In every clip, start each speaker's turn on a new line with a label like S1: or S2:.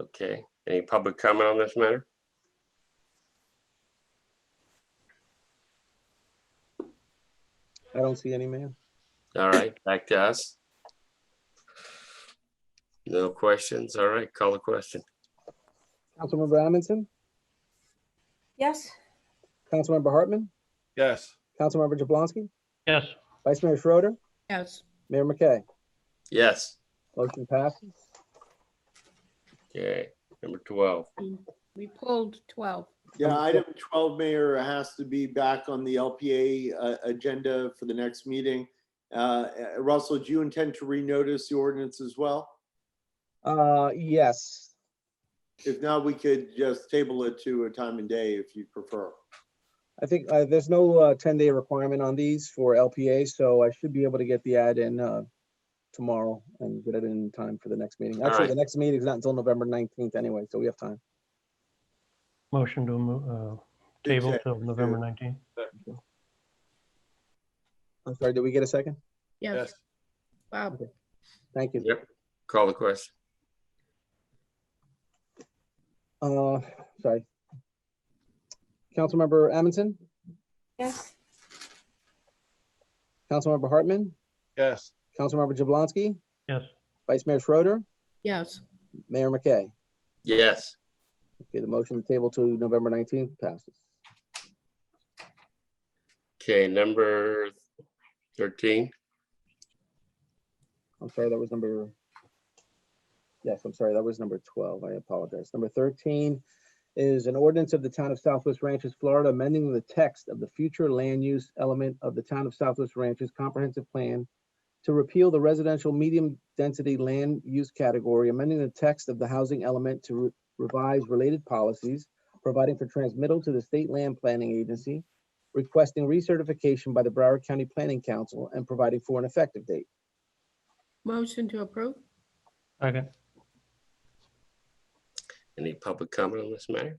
S1: Okay, any public comment on this matter?
S2: I don't see any, man.
S1: All right, back to us. No questions. All right, call the question.
S2: Councilmember Amundson,
S3: Yes.
S2: Councilmember Hartman,
S4: Yes.
S2: Councilmember Jablonski,
S5: yes,
S2: Vice Mayor Schroeder,
S3: Yes.
S2: Mayor McKay.
S1: Yes,
S2: Motion passes.
S1: okay, number twelve.
S3: We pulled 12.
S6: Yeah, item twelve, Mayor, has to be back on the LPA uh, agenda for the next meeting. Uh, Russell, do you intend to renotice the ordinance as well?
S2: Uh, yes,
S6: If not, we could just table it to a time and day if you prefer.
S2: I think, uh, there's no, uh, ten-day requirement on these for LPA, so I should be able to get the ad in, uh, tomorrow and get it in time for the next meeting.
S1: All
S2: Actually,
S1: right.
S2: the next meeting's not until November nineteenth anyway, so we have time.
S5: motion to, mo- uh, table till November nineteenth.
S2: I'm sorry, did we get a second?
S3: Yes. Bob.
S2: Thank you.
S1: Yep. Call the question.
S2: Uh, sorry. Councilmember Amundson,
S3: Yes.
S2: Councilmember Hartman,
S4: Yes.
S2: Councilmember Jablonski,
S5: Yes,
S2: Vice Mayor Schroeder,
S3: Yes.
S2: Mayor McKay.
S1: Yes,
S2: Okay, the motion to table to November nineteenth passes.
S1: okay, number thirteen.
S2: I'm sorry, that was number. Yes, I'm sorry, that was number twelve. I apologize. Number thirteen is an ordinance of the town of Southwest Ranches, Florida, amending the text of the future land use element of the town of Southwest Ranches Comprehensive Plan to repeal the residential medium density land use category, amending the text of the housing element to re- revise related policies, providing for transmittal to the state land planning agency, requesting recertification by the Broward County Planning Council, and providing for an effective date.
S3: Motion to approve?
S5: second,
S1: Any public comment on this matter?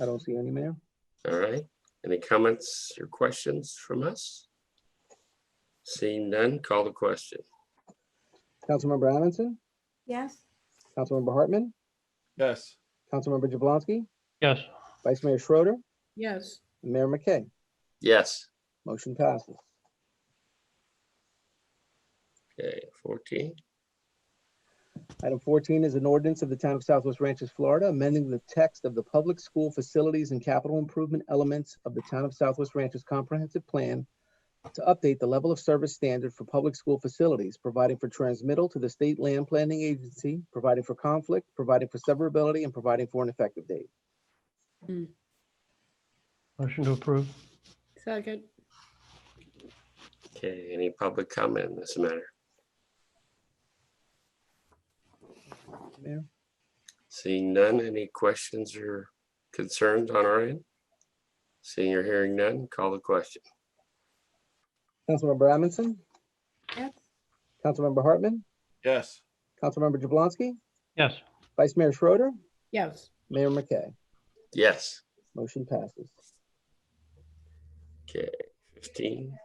S2: I don't see any, Mayor.
S1: All right, any comments or questions from us? Seeing none, call the question.
S2: Councilmember Amundson,
S3: Yes.
S2: Councilmember Hartman,
S4: Yes.
S2: Councilmember Jablonski,
S5: yes,
S2: Vice Mayor Schroeder,
S3: Yes.
S2: and Mayor McKay.
S1: Yes,
S2: Motion passes.
S1: okay, fourteen.
S2: Item fourteen is an ordinance of the Town of Southwest Ranches, Florida, amending the text of the public school facilities and capital improvement elements of the Town of Southwest Ranches Comprehensive Plan to update the level of service standard for public school facilities, providing for transmittal to the State Land Planning Agency, providing for conflict, providing for severability, and providing for an effective date.
S5: motion to approve,
S3: Second?
S1: Okay, any public comment on this matter?
S2: Mayor?
S1: Seeing none, any questions or concerns on our end? Seeing or hearing none, call the question.
S2: Councilmember Amundson,
S3: Yes.
S2: Councilmember Hartman,
S4: Yes.
S2: Councilmember Jablonski,
S5: yes,
S2: Vice Mayor Schroeder,
S3: Yes.
S2: Mayor McKay.
S1: Yes,
S2: Motion passes.
S1: okay, fifteen,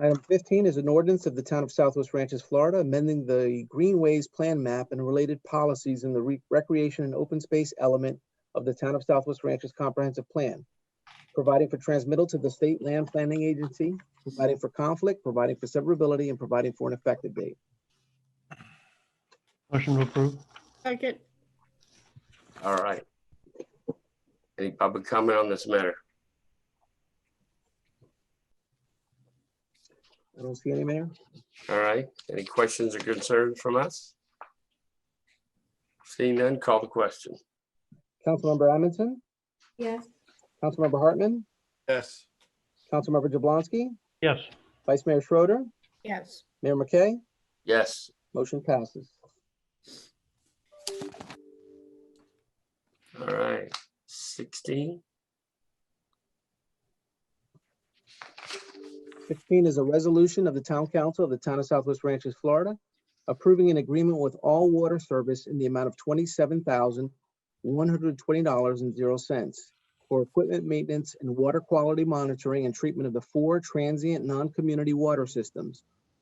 S2: Item fifteen is an ordinance of the Town of Southwest Ranches, Florida, amending the Greenways Plan Map and related policies in the re- recreation and open space element of the Town of Southwest Ranches Comprehensive Plan, providing for transmittal to the State Land Planning Agency, providing for conflict, providing for severability, and providing for an effective date.
S5: motion to approve,
S3: Second?
S1: all right. Any public comment on this matter?
S2: I don't see any, Mayor.
S1: All right, any questions or concerns from us? Seeing none, call the question.
S2: Councilmember Amundson,
S3: Yes.
S2: Councilmember Hartman,
S4: Yes.
S2: Councilmember Jablonski,
S5: yes,
S2: Vice Mayor Schroeder,
S3: Yes.
S2: Mayor McKay,
S1: Yes,
S2: motion passes.
S1: all right, sixteen,
S2: 16 is a resolution of the Town Council of the Town of Southwest Ranches, Florida, approving an agreement with All Water Service in the amount of $27,120.00 for equipment maintenance and water quality monitoring and treatment of the four transient non-community water systems